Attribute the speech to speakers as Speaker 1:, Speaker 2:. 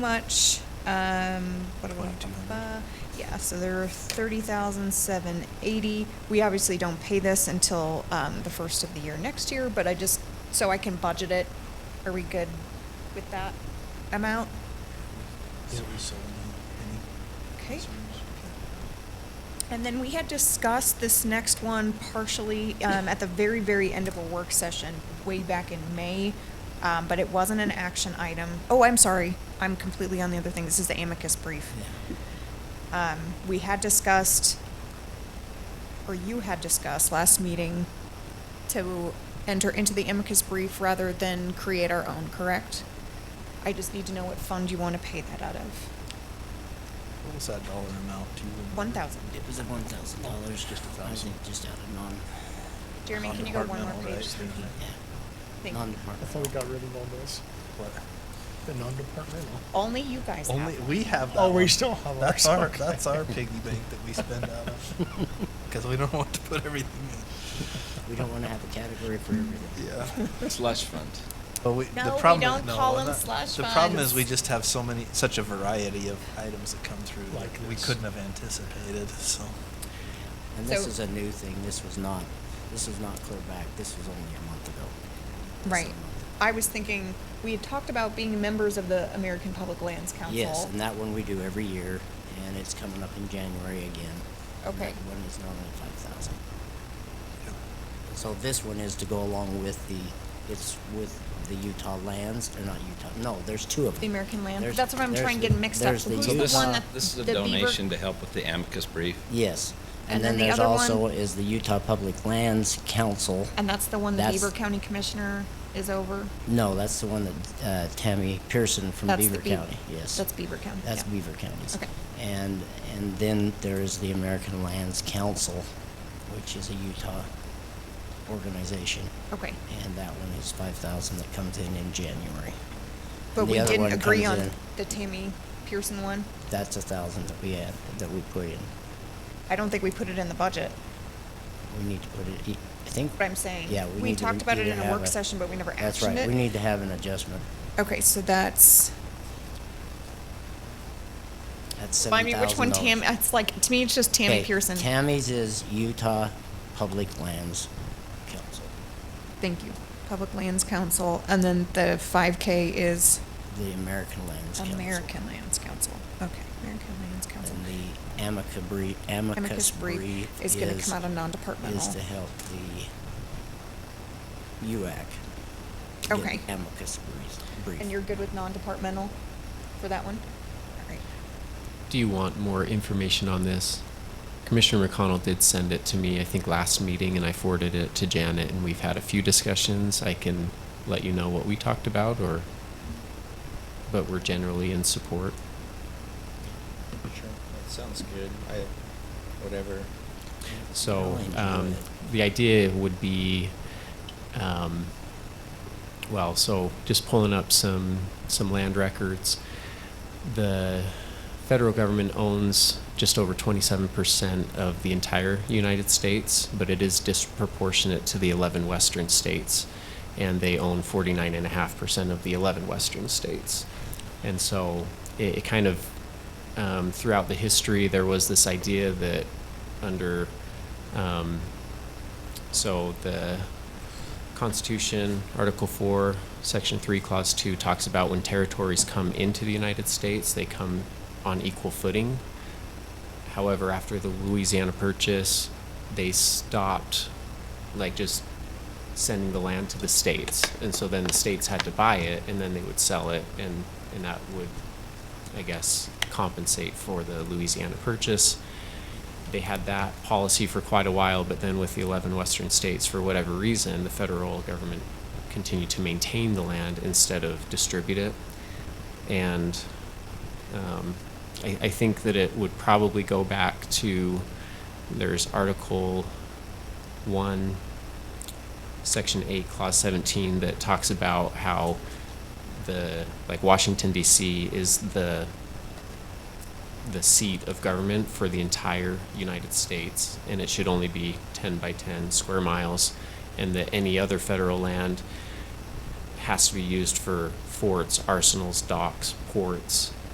Speaker 1: much, um, what do I,
Speaker 2: 2200.
Speaker 1: yeah, so there are thirty thousand seven eighty. We obviously don't pay this until, um, the first of the year next year, but I just, so I can budget it. Are we good with that amount?
Speaker 2: So we sold them,
Speaker 1: Okay.
Speaker 2: any
Speaker 1: And then we had discussed this next one partially um, at the very, very end of a work session way back in May, um, but it wasn't an action item. Oh, I'm sorry. I'm completely on the other thing. This is the amicus brief. Um, we had discussed, or you had discussed last meeting, to enter into the amicus brief rather than create our own, correct? I just need to know what fund you want to pay that out of.
Speaker 2: What was that dollar amount to? remember?
Speaker 1: One thousand.
Speaker 3: It was at one thousand dollars, just a
Speaker 2: $1,000.
Speaker 3: thousand, just out of non,
Speaker 1: Jeremy, can you go one more
Speaker 2: Non-departmental,
Speaker 1: page?
Speaker 2: right?
Speaker 1: Thank you. Thank you.
Speaker 3: yeah,
Speaker 4: I thought we
Speaker 3: non-departmental.
Speaker 4: got rid of all those,
Speaker 2: What?
Speaker 4: the non-departmental.
Speaker 1: Only you guys have
Speaker 2: Only,
Speaker 1: one.
Speaker 2: we have that
Speaker 4: Oh, we
Speaker 2: one.
Speaker 4: still have
Speaker 2: That's
Speaker 4: ours,
Speaker 2: our,
Speaker 4: okay.
Speaker 2: that's our piggy bank that we spend out of. Because we don't want to put everything
Speaker 3: We don't wanna have a category for
Speaker 2: in.
Speaker 3: everything.
Speaker 2: Yeah.
Speaker 5: Slush fund.
Speaker 2: But we, the
Speaker 1: No, we
Speaker 2: problem
Speaker 1: don't
Speaker 2: is, no,
Speaker 1: call
Speaker 2: we're
Speaker 1: 'em
Speaker 2: not-
Speaker 1: slush
Speaker 2: The problem is
Speaker 1: funds.
Speaker 2: we just have so many, such a variety of items that come through
Speaker 4: Like
Speaker 2: that we
Speaker 4: this.
Speaker 2: couldn't have anticipated, so.
Speaker 3: And this
Speaker 1: So-
Speaker 3: is a new thing, this was not, this was not clear back, this was only a month ago. This is
Speaker 1: Right.
Speaker 3: a month.
Speaker 1: I was thinking, we had talked about being members of the American Public Lands Council.
Speaker 3: Yes, and that one we do every year, and it's coming up in January again. And
Speaker 1: Okay.
Speaker 3: That one is normally five thousand.
Speaker 2: yeah.
Speaker 3: So this one is to go along with the, it's with the Utah lands, or not Utah, no, there's two of them.
Speaker 1: The American land,
Speaker 3: There's-
Speaker 1: that's what I'm
Speaker 3: there's
Speaker 1: trying to
Speaker 3: the-
Speaker 1: get mixed up.
Speaker 3: there's the
Speaker 1: Who's
Speaker 5: So
Speaker 1: the
Speaker 5: this,
Speaker 1: one
Speaker 3: Utah-
Speaker 1: that,
Speaker 5: this is a
Speaker 1: the Beaver-
Speaker 5: donation to help with the amicus brief.
Speaker 3: Yes.
Speaker 1: And
Speaker 3: And then
Speaker 1: then the
Speaker 3: there's
Speaker 1: other
Speaker 3: also
Speaker 1: one-
Speaker 3: is the Utah Public Lands Council.
Speaker 1: And that's the one the
Speaker 3: That's-
Speaker 1: Beaver County Commissioner is over?
Speaker 3: No, that's the one that uh, Tammy Pearson from
Speaker 1: That's the
Speaker 3: Beaver
Speaker 1: Beav-
Speaker 3: County, yes.
Speaker 1: That's Beaver County,
Speaker 3: That's
Speaker 1: yeah.
Speaker 3: Beaver County's.
Speaker 1: Okay.
Speaker 3: And, and then there is the American Lands Council, which is a Utah organization.
Speaker 1: Okay.
Speaker 3: And that one is five thousand that comes in in January.
Speaker 1: But
Speaker 3: And the
Speaker 1: we
Speaker 3: other
Speaker 1: didn't
Speaker 3: one
Speaker 1: agree
Speaker 3: comes
Speaker 1: on
Speaker 3: in-
Speaker 1: the Tammy Pearson one?
Speaker 3: That's a thousand that we add, that we put in.
Speaker 1: I don't think we put it in the budget,
Speaker 3: We need to put it, I think.
Speaker 1: what I'm saying.
Speaker 3: Yeah.
Speaker 1: We
Speaker 3: need to
Speaker 1: talked about it
Speaker 3: either
Speaker 1: in a
Speaker 3: have
Speaker 1: work session, but we never
Speaker 3: That's
Speaker 1: actioned
Speaker 3: right,
Speaker 1: it.
Speaker 3: we need to have an adjustment.
Speaker 1: Okay, so that's,
Speaker 3: That's
Speaker 1: remind me which one Tam,
Speaker 3: $7,000.
Speaker 1: it's like, to me, it's just Tammy
Speaker 3: Okay,
Speaker 1: Pearson.
Speaker 3: Tammy's is Utah Public Lands Council.
Speaker 1: Thank you. Public Lands Council, and then the five K is
Speaker 3: The American Lands Council.
Speaker 1: American Lands Council. Okay, American Lands Council.
Speaker 3: And the amicus brief, amicus brief
Speaker 1: is
Speaker 3: is.
Speaker 1: gonna come out of
Speaker 3: Is to
Speaker 1: non-departmental.
Speaker 3: help the UAC. get
Speaker 1: Okay.
Speaker 3: Amicus brief- brief.
Speaker 1: And you're good with non-departmental for that one? All right.
Speaker 6: Do you want more information on this? Commissioner McConnell did send it to me, I think, last meeting, and I forwarded it to Janet, and we've had a few discussions. I can let you know what we talked about, or, but we're generally in support.
Speaker 5: Sure, that sounds good. I, whatever.
Speaker 6: So
Speaker 3: Really enjoy
Speaker 6: um,
Speaker 3: it.
Speaker 6: the idea would be, um, well, so just pulling up some some land records. The federal government owns just over 27% of the entire United States, but it is disproportionate to the 11 western states, and they own 49.5% of the 11 western states. And so it, it kind of, um, throughout the history, there was this idea that under, um, so the Constitution, Article 4, Section 3, Clause 2 talks about when territories come into the United States, they come on equal footing. However, after the Louisiana Purchase, they stopped, like, just sending the land to the states. And so then the states had to buy it, and then they would sell it, and, and that would, I guess, compensate for the Louisiana Purchase they had that policy for quite a while, but then with the 11 western states, for whatever reason, the federal government continued to maintain the land instead of distribute it. And um, I, I think that it would probably go back to there's Article 1, Section 8, Clause 17, that talks about how the, like, Washington, D.C. is the the seat of government for the entire United States, and it should only be 10 by 10 square miles, and that any other federal land has to be used for forts, arsenals, docks, ports,